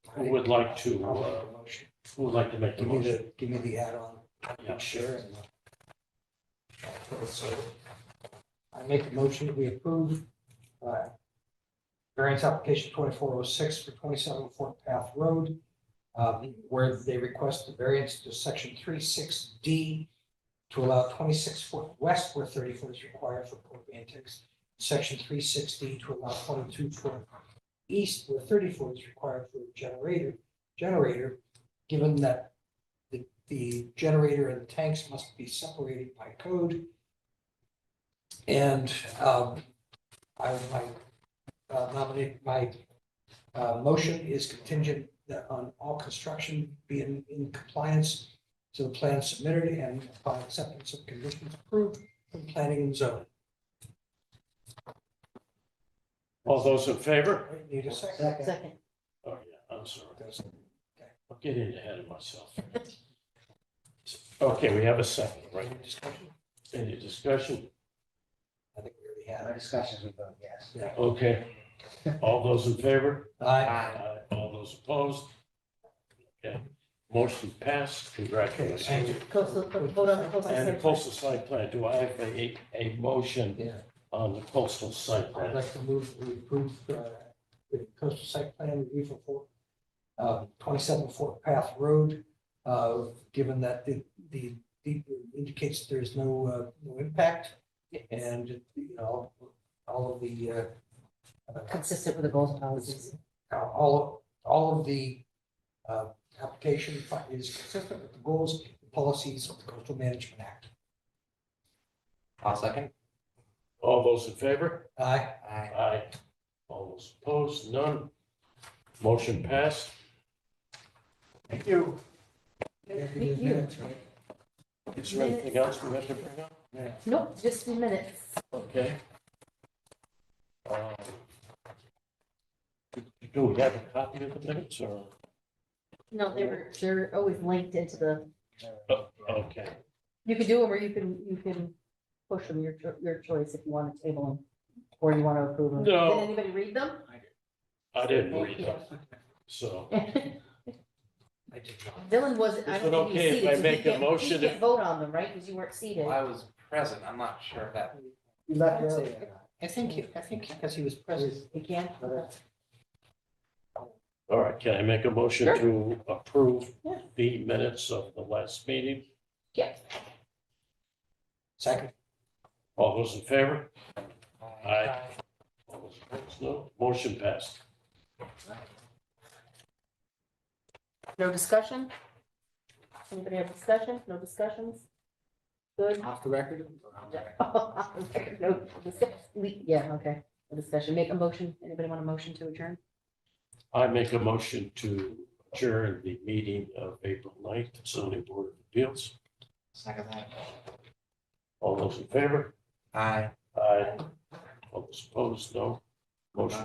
Who would like to, uh, who would like to make the Give me motion? the, give me the add-on. Yeah. Sure. and, uh, so, I make a motion that we approve uh, variance application twenty-four oh six for twenty-seven Fort Path Road, um, where they request the variance to section 36 D to allow twenty-six foot west where thirty foot is required for port antics, section 36 D to allow twenty-two foot east where thirty foot is required for a generator, generator, given that the, the generator and the tanks must be separated by code. And, um, I would like, uh, nominate, my, uh, motion is contingent that on all construction being in compliance to the plan submitted and upon acceptance of conditions approved from planning and zoning. All those in favor? Right, Need a second? Second. Oh, yeah, I'm sorry. Does- I'm getting ahead of myself. Okay, we have a second, right? any discussion? Any discussion? I think we already Our had. discussions with them, yes. Okay. All those in favor? it. Aye. Aye. All those opposed? Okay, motion passed. Okay, so- Congratulations. Coastal, hold on, coastal. And the site plan. coastal site plan, do I have a, a motion Yeah. on the coastal site I'd plan? like to move, we approve uh, the coastal site plan review for Fort, uh, twenty-seven Fort Path Road. uh, Given that the, the, the indicates there's no, uh, no impact and, you know, all of the, uh, uh, Consistent with the goals and policies. all, all of the uh, application fi- is consistent with the goals and policies of the Coastal Management Act. I'll second. All those in favor? Aye. Aye. Aye. All those opposed? None. Motion passed. Thank you. Thank you. Is there anything else we have to bring up? Nope, just a minute. Okay. Um, Do we have a copy of the minutes or? No, they were, they're always linked into the, Okay, you could do them or you can, you can push them, your, cho- your choice if you want to table them or you want to approve them. No. Did anybody read them? I didn't read them, so. I did not. Dylan wasn't, I Is it don't think he okay if was seated. I so he make a can't- motion He if- can't vote on them, right? Because you weren't seated. Well, I was present, I'm not sure if that. You left early. I think, he- I think because he was present. You can? All right, can I make a motion Sure. to approve Yeah. the minutes of the last meeting? Yeah. Second. All those in favor? Aye. Aye. All those opposed? No, motion passed. No discussion? Anybody have discussion? No discussions? Good. Off the record? or on the record? No discuss- we- Yeah, okay. No discussion. Make a motion. Anybody want a motion to adjourn? I make a motion to adjourn the meeting of April 9th, zoning board of appeals. Second that. All those in favor? Aye. Aye. All those opposed? No, motion